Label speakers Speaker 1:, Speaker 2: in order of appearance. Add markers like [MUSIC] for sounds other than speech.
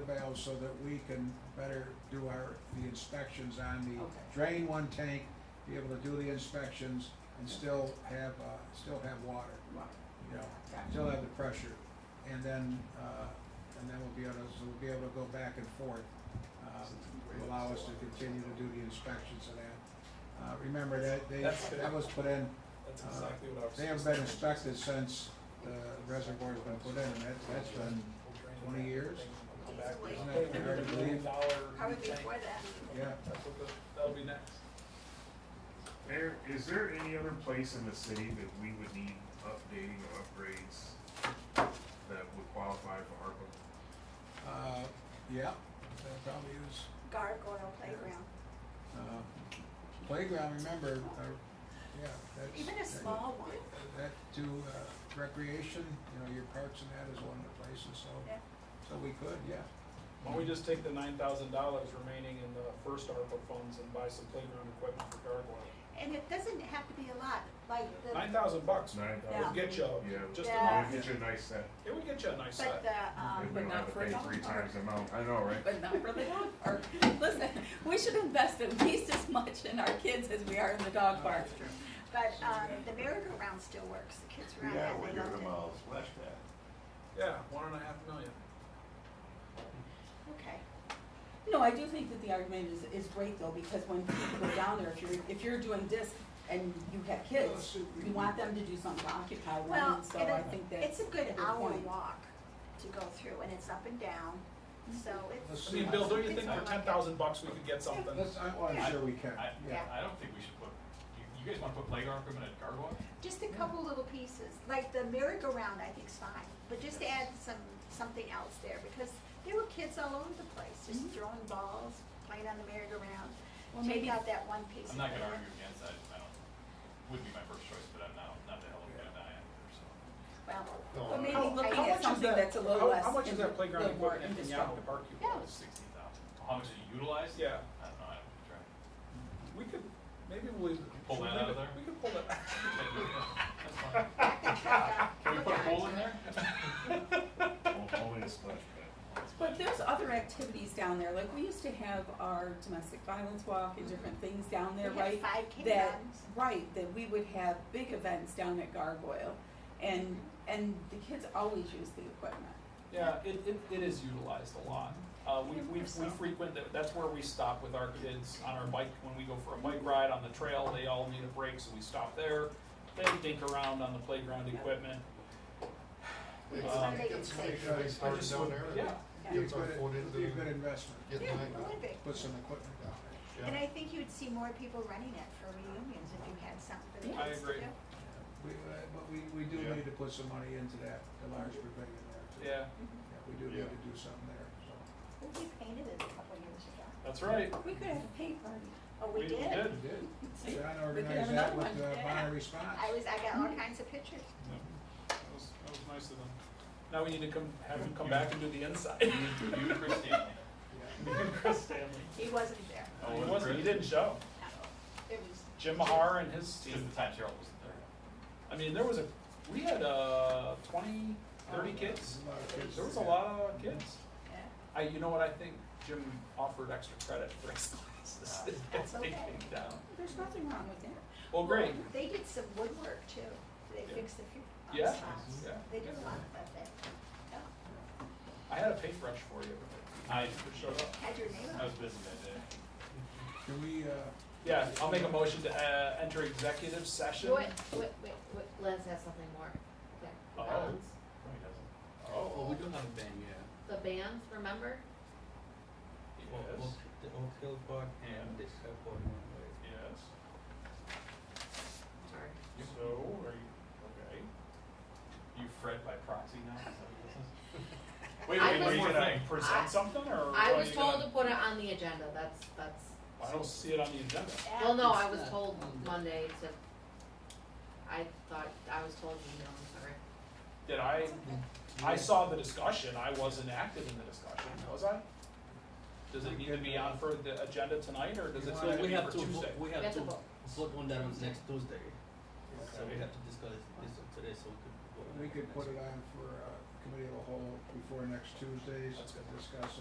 Speaker 1: valves so that we can better do our, the inspections on the
Speaker 2: Okay.
Speaker 1: drain one tank, be able to do the inspections and still have, uh, still have water,
Speaker 2: Right.
Speaker 1: you know,
Speaker 2: Gotcha.
Speaker 1: still have the pressure. And then, uh, and then we'll be able, to- so we'll be able to go back and forth, uh, to allow us to continue to do the inspections and that. Uh, remember that, they,
Speaker 3: That's good.
Speaker 1: that was put in
Speaker 3: That's
Speaker 1: Uh,
Speaker 3: exactly what I was.
Speaker 1: they haven't been inspected since the reservoir's been put in, and that, that's been, 20 years? isn't that fair to believe?
Speaker 2: Probably before that.
Speaker 1: Yeah,
Speaker 3: That's what the, that'll be next.
Speaker 4: Mayor, is there any other place in the city that we would need updating or upgrades that would qualify for ARPA?
Speaker 1: uh, yeah, that probably is,
Speaker 2: Gargoyle playground.
Speaker 1: uh, playground, remember, uh, yeah, that's.
Speaker 2: Even a small one.
Speaker 1: That to, uh, recreation, you know, your parks and that is one of the places, so,
Speaker 2: Yeah.
Speaker 1: so we could, yeah.
Speaker 3: Why don't we just take the nine thousand dollars remaining in the first ARPA funds and buy some playground equipment for Gargoyle?
Speaker 2: And it doesn't have to be a lot, like the,
Speaker 3: Nine thousand bucks
Speaker 4: Nine
Speaker 3: would
Speaker 4: thousand?
Speaker 3: get you
Speaker 4: Yeah.
Speaker 3: just
Speaker 2: Yeah.
Speaker 3: enough.
Speaker 4: It'd get you a nice set,
Speaker 3: It would get you a nice
Speaker 2: but
Speaker 3: set.
Speaker 2: the, um,
Speaker 4: if we
Speaker 5: but
Speaker 4: don't
Speaker 5: not
Speaker 4: have to
Speaker 5: for a
Speaker 4: pay
Speaker 5: dog
Speaker 4: three
Speaker 5: park.
Speaker 4: times the amount, I know, right?
Speaker 5: But not for the dog
Speaker 6: [LAUGHS]
Speaker 5: park. Listen, we should invest at least as much in our kids as we are in the dog park.
Speaker 2: but, um, the merry-go-round still works. The kids around
Speaker 7: Yeah,
Speaker 2: that,
Speaker 7: we
Speaker 2: they
Speaker 7: give them
Speaker 2: loved
Speaker 7: all splash pad.
Speaker 3: Yeah, one and a half million.
Speaker 2: it. Okay.
Speaker 6: No, I do think that the argument is, is great though, because when people go down there, if you're, if you're doing disc and you have kids, you want them to do something to occupy them,
Speaker 2: Well,
Speaker 6: and so
Speaker 2: and
Speaker 6: I
Speaker 2: it-
Speaker 6: think that's
Speaker 2: it's a good
Speaker 6: good
Speaker 2: hour
Speaker 6: point.
Speaker 2: walk to go through and it's up and down, so it's.
Speaker 3: I mean, Bill, don't you
Speaker 2: it's
Speaker 3: think for
Speaker 2: like
Speaker 3: ten thousand bucks we could get something?
Speaker 1: Let's, I, well, I'm sure we can,
Speaker 8: I,
Speaker 1: yeah.
Speaker 8: I don't think we should put, you, you guys wanna put playground equipment at Gargoyle?
Speaker 2: Just a couple little pieces, like the merry-go-round I think's fine, but just add some, something else there because there were kids all over the place, just throwing balls, playing on the merry-go-round.
Speaker 6: Mm-hmm. Well,
Speaker 2: Take
Speaker 6: maybe-
Speaker 2: out that one piece.
Speaker 8: I'm not gonna argue against that, I don't, would be my first choice, but I'm not, not the hell of a guy I am, so.
Speaker 2: Well,
Speaker 7: No,
Speaker 2: well,
Speaker 7: I-
Speaker 2: maybe.
Speaker 6: How-
Speaker 2: I-
Speaker 6: how much is
Speaker 2: something-
Speaker 6: that? that's a
Speaker 3: How-
Speaker 6: little less
Speaker 3: How much is
Speaker 6: in-
Speaker 3: that playground
Speaker 6: little more
Speaker 3: equipment in Yahoo Park
Speaker 6: indestructible.
Speaker 3: you
Speaker 2: Yeah.
Speaker 3: want?
Speaker 8: Sixteen thousand, how much is it utilized?
Speaker 3: Yeah,
Speaker 8: I don't know, I haven't tried.
Speaker 3: we could, maybe we'll.
Speaker 8: Pull
Speaker 3: should
Speaker 8: that
Speaker 3: we
Speaker 8: out of
Speaker 3: do-
Speaker 8: there?
Speaker 3: We could pull that.
Speaker 8: [LAUGHS] That's
Speaker 7: [LAUGHS]
Speaker 8: fine. [LAUGHS] Can we put a pool in there?
Speaker 4: Only a splash pad.
Speaker 6: But there's other activities down there, like we used to have our domestic violence walk and different things down there,
Speaker 2: We
Speaker 6: right?
Speaker 2: had five K
Speaker 6: that,
Speaker 2: runs.
Speaker 6: right, that we would have big events down at Gargoyle, and, and the kids always use the equipment.
Speaker 3: Yeah, it, it, it is utilized a lot. Uh, we, we, we frequent, that- that's where we stop with our kids on our bike, when we go for a bike ride on the trail, they all need a break, so we stop there. They dink around on the playground equipment.
Speaker 2: It's
Speaker 3: Um,
Speaker 2: Sunday
Speaker 7: It's
Speaker 2: at
Speaker 7: funny,
Speaker 2: six.
Speaker 7: you know, they start down there and
Speaker 3: Yeah,
Speaker 1: Be a
Speaker 7: Gets our
Speaker 1: good-
Speaker 7: foot
Speaker 1: it'd Be a
Speaker 7: into-
Speaker 1: good investment,
Speaker 7: Get
Speaker 2: Yeah,
Speaker 7: behind
Speaker 2: a little
Speaker 7: them.
Speaker 2: bit.
Speaker 1: put some equipment down there.
Speaker 2: And I think you'd see more people running it for reunions if you had something for the
Speaker 3: I
Speaker 2: kids to do.
Speaker 3: agree.
Speaker 1: We, uh, but we, we do
Speaker 7: Yeah.
Speaker 1: need to put some money into that, the large pavilion there too.
Speaker 3: yeah,
Speaker 1: Yeah, we do need
Speaker 7: Yeah.
Speaker 1: to do something there, so.
Speaker 2: Well, We painted it a couple years ago.
Speaker 3: that's right.
Speaker 6: We could have a pay party.
Speaker 2: Oh, we did?
Speaker 1: We did.
Speaker 6: See?
Speaker 1: John
Speaker 6: We could have
Speaker 1: organized that
Speaker 6: another
Speaker 1: with
Speaker 6: one.
Speaker 1: the
Speaker 6: Yeah.
Speaker 1: Bonner response.
Speaker 2: I was, I got
Speaker 6: Mm-hmm.
Speaker 2: all kinds of pictures.
Speaker 3: That was, that was nice of them. Now we need to come, have them come back and do the inside. [LAUGHS]
Speaker 8: You and
Speaker 3: Chris
Speaker 8: Chris [LAUGHS] Stanley.
Speaker 3: Stanley.
Speaker 2: He wasn't there.
Speaker 8: Oh,
Speaker 3: He
Speaker 8: and
Speaker 3: wasn't, he
Speaker 8: Chris?
Speaker 3: didn't show.
Speaker 2: It was
Speaker 3: Jim Mahar and his
Speaker 8: See, it's
Speaker 3: team.
Speaker 8: the time Cheryl wasn't there.
Speaker 3: I mean, there was a, we had, uh, twenty, thirty kids.
Speaker 1: A lot of kids.
Speaker 3: There was a lot of kids.
Speaker 2: Yeah.
Speaker 3: I, you know what, I think Jim offered extra credit for his [LAUGHS] classes.
Speaker 2: That's
Speaker 3: They
Speaker 2: okay.
Speaker 3: came down.
Speaker 6: There's nothing wrong with that.
Speaker 3: Well, great,
Speaker 2: They did some woodwork too. They
Speaker 3: Yeah.
Speaker 2: fixed a few um,
Speaker 3: Yeah.
Speaker 2: spots.
Speaker 3: Yeah.
Speaker 2: They did a lot of that. Yeah.
Speaker 3: I had a paintbrush for you.
Speaker 8: I,
Speaker 3: Showed up.
Speaker 2: Had your name
Speaker 8: I
Speaker 2: on
Speaker 8: was
Speaker 2: it.
Speaker 8: busy that day.
Speaker 1: Can we, uh,
Speaker 3: Yeah, I'll make a motion to, uh, enter executive session.
Speaker 9: Wait, wait, wait, wait, Les has something more. Yeah, the
Speaker 3: Oh.
Speaker 9: bands,
Speaker 8: No, he doesn't.
Speaker 3: Oh,
Speaker 10: we don't have a band yet.
Speaker 9: the bands, remember?
Speaker 3: yes,
Speaker 10: Oak, the Oak Hill Park and the Airport One Way.
Speaker 3: yes.
Speaker 9: Sorry.
Speaker 3: So, are you, okay.
Speaker 8: You Fred by proxy now, is that what this is?
Speaker 3: Wait,
Speaker 9: I
Speaker 3: wait,
Speaker 9: was-
Speaker 3: were you gonna
Speaker 8: I-
Speaker 3: present something or?
Speaker 9: I
Speaker 3: are
Speaker 9: was
Speaker 3: you
Speaker 9: told to
Speaker 3: gonna-
Speaker 9: put it on the agenda, that's, that's,
Speaker 3: oh, I don't see it on the agenda.
Speaker 9: well, no, I
Speaker 10: It's
Speaker 9: was
Speaker 10: not
Speaker 9: told
Speaker 10: on the-
Speaker 9: Monday to, I thought, I was told, you know, I'm sorry.
Speaker 3: Did I, I saw the discussion, I wasn't active in the discussion, was I? Does it need to be on for the agenda tonight, or does it
Speaker 1: So
Speaker 3: need to
Speaker 10: We
Speaker 3: be
Speaker 10: have
Speaker 3: for
Speaker 10: to,
Speaker 3: Tuesday?
Speaker 10: vo- we
Speaker 9: We
Speaker 10: have
Speaker 9: have
Speaker 10: to
Speaker 9: to vote.
Speaker 10: vote on that on next Tuesday. So we
Speaker 1: Okay.
Speaker 10: have to discuss this today, so we could vote on
Speaker 1: we
Speaker 10: it
Speaker 1: could
Speaker 10: next
Speaker 1: put it on for, uh, committee of the whole before next Tuesday's,
Speaker 3: That's good.
Speaker 1: discuss it.